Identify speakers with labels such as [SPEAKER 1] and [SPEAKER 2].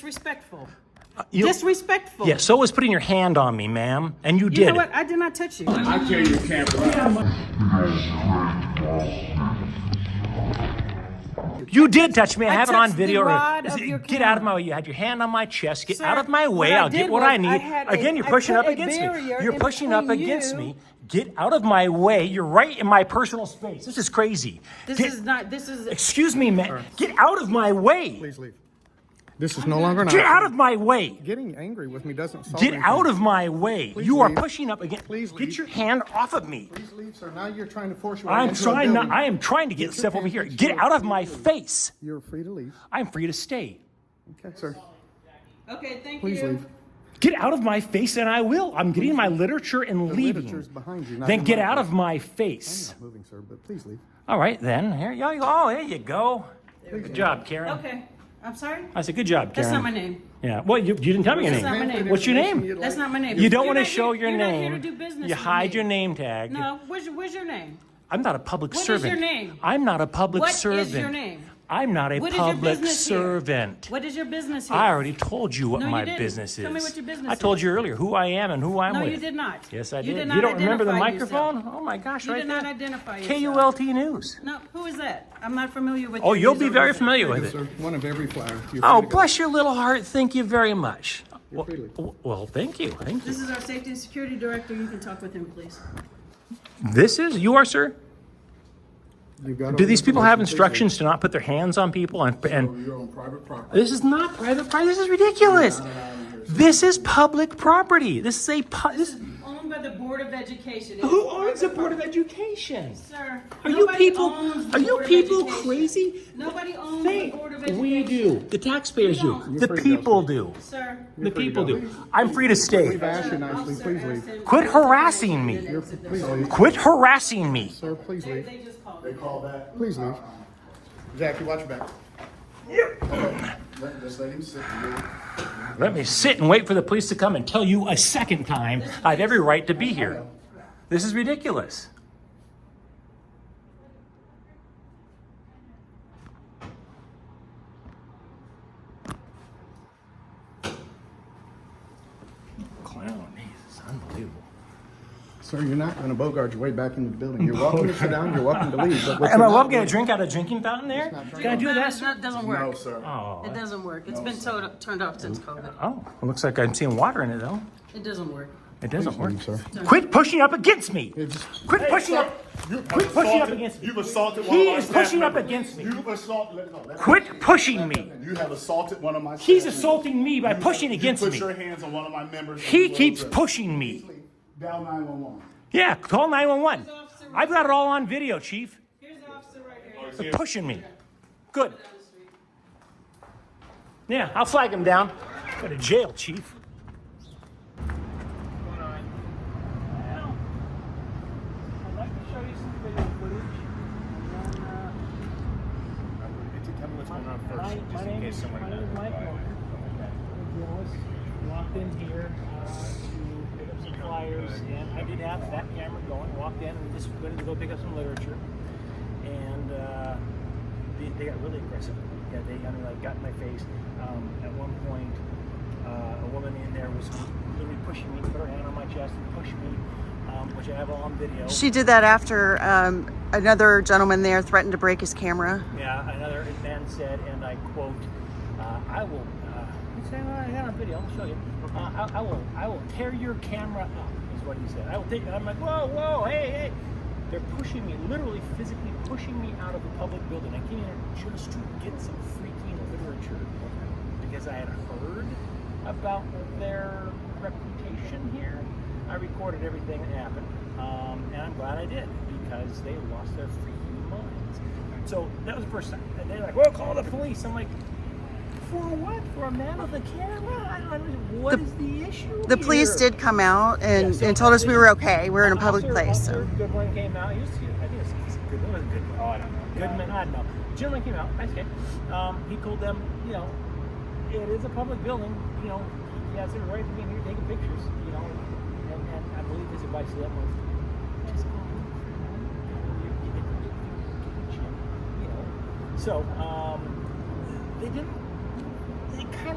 [SPEAKER 1] Disrespectful.
[SPEAKER 2] You-
[SPEAKER 1] Disrespectful.
[SPEAKER 2] yeah, so was putting your hand on me, ma'am, and you,
[SPEAKER 1] You
[SPEAKER 2] did.
[SPEAKER 1] know what? I did not touch you.
[SPEAKER 3] I tell you, camp out.
[SPEAKER 2] You did touch me. I, have it on
[SPEAKER 1] touched
[SPEAKER 2] video.
[SPEAKER 1] the rod of
[SPEAKER 2] Get
[SPEAKER 1] your
[SPEAKER 2] out
[SPEAKER 1] camera.
[SPEAKER 2] of my way. You had your hand on my chest. Get
[SPEAKER 1] Sir,
[SPEAKER 2] out of my
[SPEAKER 1] what
[SPEAKER 2] way.
[SPEAKER 1] I
[SPEAKER 2] I'll
[SPEAKER 1] did
[SPEAKER 2] get what
[SPEAKER 1] was
[SPEAKER 2] I need.
[SPEAKER 1] I had a-
[SPEAKER 2] Again, you're
[SPEAKER 1] I
[SPEAKER 2] pushing
[SPEAKER 1] put
[SPEAKER 2] up
[SPEAKER 1] a
[SPEAKER 2] against me.
[SPEAKER 1] barrier
[SPEAKER 2] You're
[SPEAKER 1] in
[SPEAKER 2] pushing up
[SPEAKER 1] between
[SPEAKER 2] against
[SPEAKER 1] you-
[SPEAKER 2] me. Get out of my way. You're right in my personal space. This is crazy.
[SPEAKER 1] This
[SPEAKER 2] Get-
[SPEAKER 1] is not. This is.
[SPEAKER 2] excuse me, man. Get out of my way.
[SPEAKER 4] Please leave. This is no longer an
[SPEAKER 2] Get
[SPEAKER 4] option.
[SPEAKER 2] out of my way.
[SPEAKER 4] Getting angry with me doesn't solve
[SPEAKER 2] Get
[SPEAKER 4] anything.
[SPEAKER 2] out of my way. you are
[SPEAKER 4] leave.
[SPEAKER 2] pushing up against.
[SPEAKER 4] Please
[SPEAKER 2] get
[SPEAKER 4] leave.
[SPEAKER 2] your hand off of me.
[SPEAKER 4] Please leave, sir. Now you're trying to force your way
[SPEAKER 2] I'm
[SPEAKER 4] into a
[SPEAKER 2] trying not.
[SPEAKER 4] building.
[SPEAKER 2] I am trying to get,
[SPEAKER 4] your
[SPEAKER 2] stuff over
[SPEAKER 4] hand
[SPEAKER 2] here.
[SPEAKER 4] into
[SPEAKER 2] Get
[SPEAKER 4] a
[SPEAKER 2] out of my
[SPEAKER 4] building.
[SPEAKER 2] face.
[SPEAKER 4] You're free to leave.
[SPEAKER 2] I'm free to stay.
[SPEAKER 4] Okay, sir.
[SPEAKER 1] Okay, thank
[SPEAKER 4] Please
[SPEAKER 1] you.
[SPEAKER 4] leave.
[SPEAKER 2] Get out of my face, and I will. I'm getting my literature and leaving.
[SPEAKER 4] literature's behind you, not
[SPEAKER 2] Then
[SPEAKER 4] in
[SPEAKER 2] get
[SPEAKER 4] my
[SPEAKER 2] out
[SPEAKER 4] face.
[SPEAKER 2] of my
[SPEAKER 4] I'm
[SPEAKER 2] face.
[SPEAKER 4] not moving, sir, but please leave.
[SPEAKER 2] All right, then. Here you go. Oh, there you go. Good job, Karen.
[SPEAKER 1] Okay. I'm sorry.
[SPEAKER 2] I said, good job, Karen.
[SPEAKER 1] That's not my name.
[SPEAKER 2] Yeah. Well, you, you didn't tell me your
[SPEAKER 1] That's not
[SPEAKER 2] name.
[SPEAKER 1] my name.
[SPEAKER 2] What's your name?
[SPEAKER 1] That's not my name.
[SPEAKER 2] You don't
[SPEAKER 1] You're
[SPEAKER 2] want to
[SPEAKER 1] not
[SPEAKER 2] show
[SPEAKER 1] here-
[SPEAKER 2] your
[SPEAKER 1] you're
[SPEAKER 2] name.
[SPEAKER 1] Not here to do business
[SPEAKER 2] You
[SPEAKER 1] with
[SPEAKER 2] hide
[SPEAKER 1] me.
[SPEAKER 2] your name tag.
[SPEAKER 1] No. Where's your, where's your name?
[SPEAKER 2] I'm not a public
[SPEAKER 1] What is your
[SPEAKER 2] servant.
[SPEAKER 1] name?
[SPEAKER 2] I'm not a public
[SPEAKER 1] What is your
[SPEAKER 2] servant.
[SPEAKER 1] name?
[SPEAKER 2] I'm not a
[SPEAKER 1] What is your
[SPEAKER 2] public
[SPEAKER 1] business here?
[SPEAKER 2] servant.
[SPEAKER 1] What is your business here?
[SPEAKER 2] I already told you what
[SPEAKER 1] No, you
[SPEAKER 2] my
[SPEAKER 1] didn't.
[SPEAKER 2] business is.
[SPEAKER 1] Tell me what your business
[SPEAKER 2] I told
[SPEAKER 1] is.
[SPEAKER 2] you earlier who I am and who I'm
[SPEAKER 1] No,
[SPEAKER 2] with.
[SPEAKER 1] you did not.
[SPEAKER 2] Yes, I did.
[SPEAKER 1] You did not
[SPEAKER 2] you don't remember the
[SPEAKER 1] identify yourself.
[SPEAKER 2] microphone? Oh my gosh,
[SPEAKER 1] You
[SPEAKER 2] right
[SPEAKER 1] did
[SPEAKER 2] there.
[SPEAKER 1] not identify yourself.
[SPEAKER 2] KULT News.
[SPEAKER 1] No, who is that? I'm not familiar with.
[SPEAKER 2] Oh,
[SPEAKER 1] your
[SPEAKER 2] you'll
[SPEAKER 1] news
[SPEAKER 2] be very
[SPEAKER 1] organization.
[SPEAKER 2] familiar
[SPEAKER 4] Yes,
[SPEAKER 2] with it.
[SPEAKER 4] sir. One of every flower. You're
[SPEAKER 2] Oh,
[SPEAKER 4] free to go.
[SPEAKER 2] bless your little heart. Thank you very much. Well,
[SPEAKER 4] free to leave.
[SPEAKER 2] w- well, thank you. Thank you.
[SPEAKER 1] This is our safety and security director. You can talk with him, please.
[SPEAKER 2] This is you are, sir.
[SPEAKER 4] You've got
[SPEAKER 2] Do
[SPEAKER 4] all
[SPEAKER 2] these
[SPEAKER 4] the
[SPEAKER 2] people have
[SPEAKER 4] information.
[SPEAKER 2] instructions to not put their hands on people and and
[SPEAKER 3] You're on private property.
[SPEAKER 2] This is not private property. This is ridiculous. This is public property. This is a pu- this.
[SPEAKER 1] Owned by the Board of Education.
[SPEAKER 2] Who owns the board of education?
[SPEAKER 1] Sir,
[SPEAKER 2] Are you
[SPEAKER 1] nobody
[SPEAKER 2] people?
[SPEAKER 1] owns the
[SPEAKER 2] Are you
[SPEAKER 1] Board of
[SPEAKER 2] people
[SPEAKER 1] Education.
[SPEAKER 2] crazy?
[SPEAKER 1] Nobody owns the Board of
[SPEAKER 2] Think
[SPEAKER 1] Education.
[SPEAKER 2] we do. The taxpayers do.
[SPEAKER 1] don't.
[SPEAKER 2] The
[SPEAKER 4] free to go,
[SPEAKER 2] people do.
[SPEAKER 1] Sir.
[SPEAKER 2] The
[SPEAKER 4] free to
[SPEAKER 2] people
[SPEAKER 4] go.
[SPEAKER 2] do. I'm free to stay.
[SPEAKER 4] Bash you nicely. Please leave.
[SPEAKER 2] Quit harassing me.
[SPEAKER 4] Please leave.
[SPEAKER 2] Quit harassing me.
[SPEAKER 4] Sir, please
[SPEAKER 1] They,
[SPEAKER 4] leave.
[SPEAKER 1] they just called.
[SPEAKER 3] They call that.
[SPEAKER 4] Please leave. Jackie, watch your back.
[SPEAKER 3] Let- Just let him sit. and
[SPEAKER 2] Let me sit and wait for the police to come and tell you a second time I have every right to be here. This is ridiculous. Clown, Jesus, unbelievable.
[SPEAKER 4] Sir, you're not going to bogart your way back into the building. You're welcome to sit down. You're welcome to leave. But what
[SPEAKER 2] Am I
[SPEAKER 4] you're
[SPEAKER 2] welcome
[SPEAKER 4] not
[SPEAKER 2] to get a drink out of a drinking fountain there? Can I do that? sir?
[SPEAKER 1] That doesn't
[SPEAKER 3] No,
[SPEAKER 1] work.
[SPEAKER 3] sir.
[SPEAKER 1] It doesn't work. It's been to- turned off since COVID.
[SPEAKER 2] Oh, it looks like I'm seeing water in it though.
[SPEAKER 1] It doesn't work.
[SPEAKER 2] It doesn't work.
[SPEAKER 4] doing, sir.
[SPEAKER 2] Quit pushing up against me.
[SPEAKER 4] just-
[SPEAKER 2] Quit pushing
[SPEAKER 3] sir,
[SPEAKER 2] up.
[SPEAKER 3] you've
[SPEAKER 2] Quit pushing up
[SPEAKER 3] assaulted-
[SPEAKER 2] against me.
[SPEAKER 3] You've assaulted one
[SPEAKER 2] He
[SPEAKER 3] of my
[SPEAKER 2] is
[SPEAKER 3] staff
[SPEAKER 2] pushing up
[SPEAKER 3] members.
[SPEAKER 2] against me.
[SPEAKER 3] You've assaulted. let- no, let me-
[SPEAKER 2] Quit pushing me.
[SPEAKER 3] You have assaulted one of my.
[SPEAKER 2] He's
[SPEAKER 3] staff members.
[SPEAKER 2] assaulting me by
[SPEAKER 3] You-
[SPEAKER 2] pushing
[SPEAKER 3] you
[SPEAKER 2] against
[SPEAKER 3] put
[SPEAKER 2] me.
[SPEAKER 3] your hands on one of my members.
[SPEAKER 2] He
[SPEAKER 3] and you
[SPEAKER 2] keeps
[SPEAKER 3] were-
[SPEAKER 2] pushing me.
[SPEAKER 3] Dial 911.
[SPEAKER 2] Yeah, call 911. I've got it all on video, Chief.
[SPEAKER 1] Here's the officer right here.
[SPEAKER 2] They're pushing me. Good. Yeah, I'll flag him down. Go to jail, Chief.
[SPEAKER 3] Tell me what's going on
[SPEAKER 5] My, my name is, my name is Mike Morgan. I'm a journalist, walked in here uh, to pick up some flyers, and I did have that camera going, walked in, and just went to go pick up some literature. And uh, they, they got really aggressive. Yeah, they I mean, like, got in my face. Um, at one point, uh, a woman in there was literally pushing me, put her hand on my chest and pushed me, um, which I have all on video.
[SPEAKER 6] She did that after um, another gentleman there threatened to break his camera.
[SPEAKER 5] Yeah, another man said, and I quote, uh, "I will." Uh, he said, well, "I got a video. I'll show you. Uh, I, I will. I will tear your camera up." Is what he said. I will take. I'm like, "Whoa, whoa, hey, hey!" They're pushing me, literally, physically pushing me out of a public building. I came here just to get some freaking literature because I had heard about their reputation here. I recorded everything that happened, um, and I'm glad I did because they lost their freaking minds. So that was the first time. And they're like, "Well, call the police." I'm like, "For what? For a man with a camera? I don't understand. What
[SPEAKER 6] The-
[SPEAKER 5] is the issue?"
[SPEAKER 6] The police
[SPEAKER 5] here?"
[SPEAKER 6] did come out and,
[SPEAKER 5] Yeah, so
[SPEAKER 6] and told us we were
[SPEAKER 5] officer-
[SPEAKER 6] okay. We were in a public
[SPEAKER 5] officer-
[SPEAKER 6] place.
[SPEAKER 5] Officer
[SPEAKER 6] So.
[SPEAKER 5] Goodwin came out. He was, I think it was, Goodwin. It was Goodwin. Oh, I don't know. Goodman, I don't know. Gentleman came out. Nice guy. Um, he told them, you know, it is a public building. You know, he has every right to be in here taking pictures. You know, and, and I believe his advice to them was just go. You- you- you know. So um, they didn't. They kind of.